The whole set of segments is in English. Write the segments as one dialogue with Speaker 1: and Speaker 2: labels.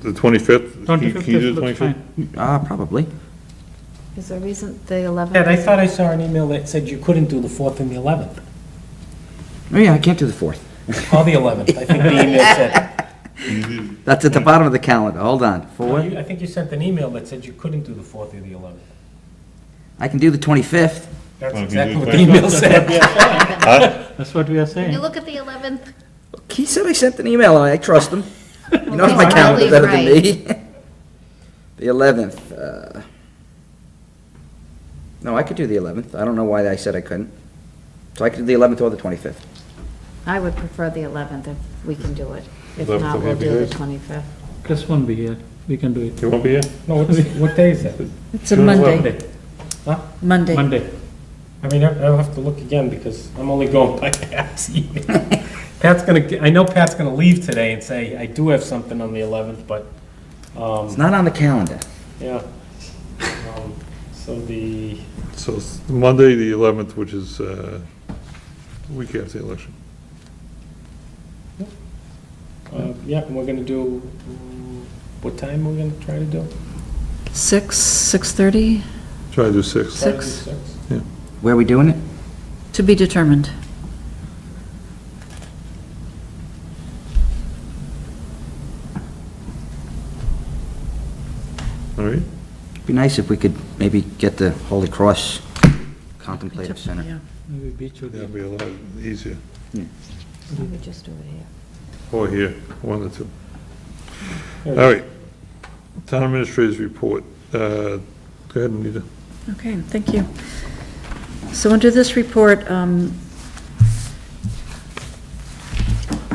Speaker 1: the twenty-fifth? Can you
Speaker 2: 25th
Speaker 1: can you do the
Speaker 2: looks
Speaker 1: twenty-fifth?
Speaker 2: fine.
Speaker 3: Uh, probably.
Speaker 4: Is there a reason the 11th?
Speaker 5: Ed, I thought I saw an email that said you couldn't do the 4th and the 11th,
Speaker 3: Oh, yeah, I can't do the 4th.
Speaker 5: or the 11th. I think the email said,
Speaker 3: That's at the bottom of the calendar. Hold on.
Speaker 5: No,
Speaker 3: Four.
Speaker 5: you- I think you sent an email that said you couldn't do the 4th or the 11th.
Speaker 3: I can do the 25th.
Speaker 5: That's
Speaker 1: Well, if you
Speaker 5: exactly
Speaker 1: do
Speaker 5: what the
Speaker 1: twenty-
Speaker 5: email said.
Speaker 2: That's what we are
Speaker 4: Can you
Speaker 2: saying.
Speaker 4: look at the 11th?
Speaker 3: He said I sent an email. I trust him. He knows my
Speaker 4: Well,
Speaker 3: calendar
Speaker 4: probably
Speaker 3: better than
Speaker 4: right.
Speaker 3: me. The 11th. uh, No, I could do the 11th. I don't know why I said I couldn't. So I could do the 11th or the 25th.
Speaker 4: I would prefer the 11th if we can do it. If
Speaker 1: 11th
Speaker 4: not,
Speaker 1: would
Speaker 4: we'll
Speaker 1: be
Speaker 4: do the
Speaker 1: good.
Speaker 4: 25th.
Speaker 2: Chris won't be here. We can do it.
Speaker 1: You won't be here?
Speaker 5: No, what's- what day is that?
Speaker 6: It's a
Speaker 1: June
Speaker 6: Monday,
Speaker 2: Monday,
Speaker 6: Monday.
Speaker 2: Monday.
Speaker 5: I mean, I- I'll have to look again because I'm only going by Pat's email. Pat's gonna, I know Pat's gonna leave today and say, I do have something on the 11th, but,
Speaker 3: It's
Speaker 5: um,
Speaker 3: not on the calendar.
Speaker 5: yeah. Um, So the,
Speaker 1: So it's Monday, the eleventh, which is, uh, the week after the election.
Speaker 5: uh, yeah, and we're gonna do, mm, what time we're gonna try to do?
Speaker 6: Six, 6:30,
Speaker 1: Try to do six.
Speaker 5: Try to do
Speaker 6: Six.
Speaker 5: Six.
Speaker 3: Where are we doing it?
Speaker 6: to be determined.
Speaker 1: All right?
Speaker 3: It'd be nice if we could maybe get the Holy Cross Contemplative Center.
Speaker 6: Yeah.
Speaker 2: Maybe beach will
Speaker 1: That'd
Speaker 2: be.
Speaker 1: be a lot easier.
Speaker 4: Let me just do it here.
Speaker 1: Or here, one or two.
Speaker 5: Yeah.
Speaker 1: All right. Town administrators report. Uh, Go ahead, Anita.
Speaker 6: Okay, thank you. So under this report, um,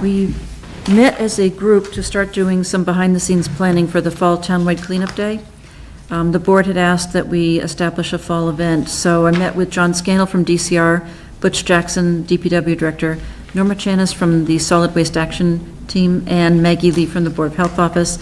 Speaker 6: we met as a group to start doing some behind-the-scenes planning for the Fall Townwide Cleanup Day. Um, The board had asked that we establish a fall event, so I met with John Scannell from DCR, Butch Jackson, DPW Director, Norma Chanis from the Solid Waste Action Team, and Maggie Lee from the Board of Health Office.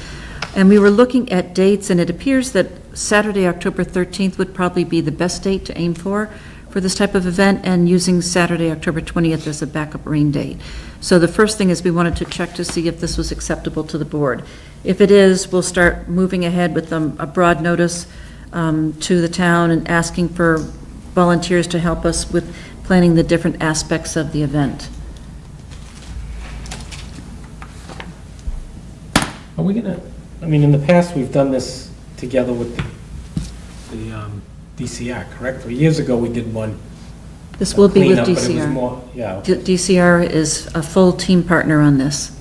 Speaker 6: And we were looking at dates, and it appears that Saturday, October 13th would probably be the best date to aim for, for this type of event, and using Saturday, October 20th as a backup rain date. So the first thing is we wanted to check to see if this was acceptable to the board. If it is, we'll start moving ahead with um, a broad notice um, to the town and asking for volunteers to help us with planning the different aspects of the event.
Speaker 5: Are we gonna, I mean, in the past, we've done this together with the um, DCR, correct? Three years ago, we did one.
Speaker 6: This will be with
Speaker 5: cleanup, but it was
Speaker 6: DCR.
Speaker 5: more- Yeah,
Speaker 6: D- DCR is a full team partner on this.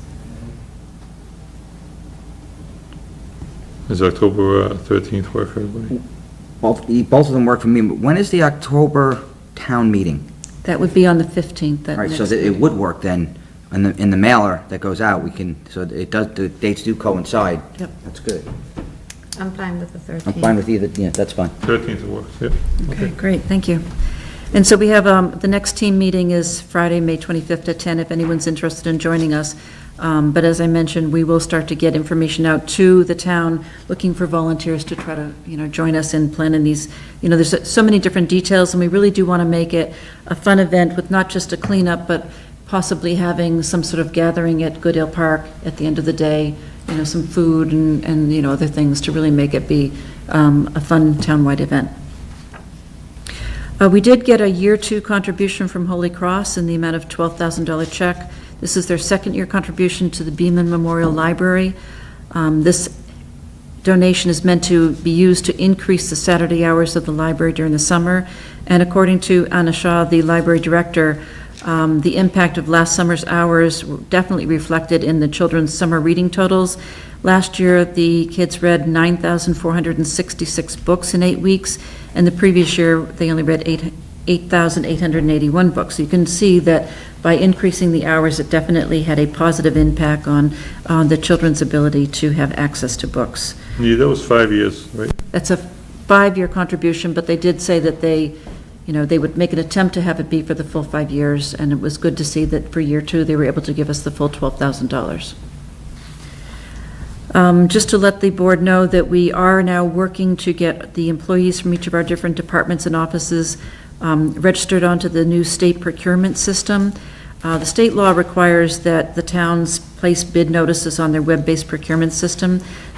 Speaker 1: Is October uh, 13th work, everybody?
Speaker 3: Both, the- both of them work for me, but when is the October town meeting?
Speaker 6: That would be on the 15th,
Speaker 3: All
Speaker 6: that
Speaker 3: right, so
Speaker 6: next
Speaker 3: that it
Speaker 6: meeting.
Speaker 3: would work then, in the, in the mailer that goes out, we can, so it does, the dates do coincide.
Speaker 6: Yep.
Speaker 3: That's good.
Speaker 4: I'm fine with the 13th.
Speaker 3: I'm fine with either, yeah, that's fine.
Speaker 1: 13th works, yeah.
Speaker 6: Okay, great, thank you. And so we have, um, the next team meeting is Friday, May 25th at 10, if anyone's interested in joining us. Um, But as I mentioned, we will start to get information out to the town, looking for volunteers to try to, you know, join us in planning these, you know, there's so many different details, and we really do want to make it a fun event with not just a cleanup, but possibly having some sort of gathering at Goodale Park at the end of the day, you know, some food and, and, you know, other things to really make it be um, a fun townwide event. Uh, We did get a year-two contribution from Holy Cross in the amount of $12,000 check. This is their second-year contribution to the Beaman Memorial Library. Um, This donation is meant to be used to increase the Saturday hours of the library during the summer. And according to Anna Shaw, the library director, um, the impact of last summer's hours were definitely reflected in the children's summer reading totals. Last year, the kids read 9,466 books in eight weeks, and the previous year, they only read eight 8,881 books. You can see that by increasing the hours, it definitely had a positive impact on, on the children's ability to have access to books.
Speaker 1: Yeah, that was five years, right?
Speaker 6: That's a five-year contribution, but they did say that they, you know, they would make an attempt to have it be for the full five years, and it was good to see that for year two, they were able to give us the full $12,000. Um, Just to let the board know that we are now working to get the employees from each of our different departments and offices um, registered onto the new state procurement system. Uh, The state law requires that the towns place bid notices on their web-based procurement system.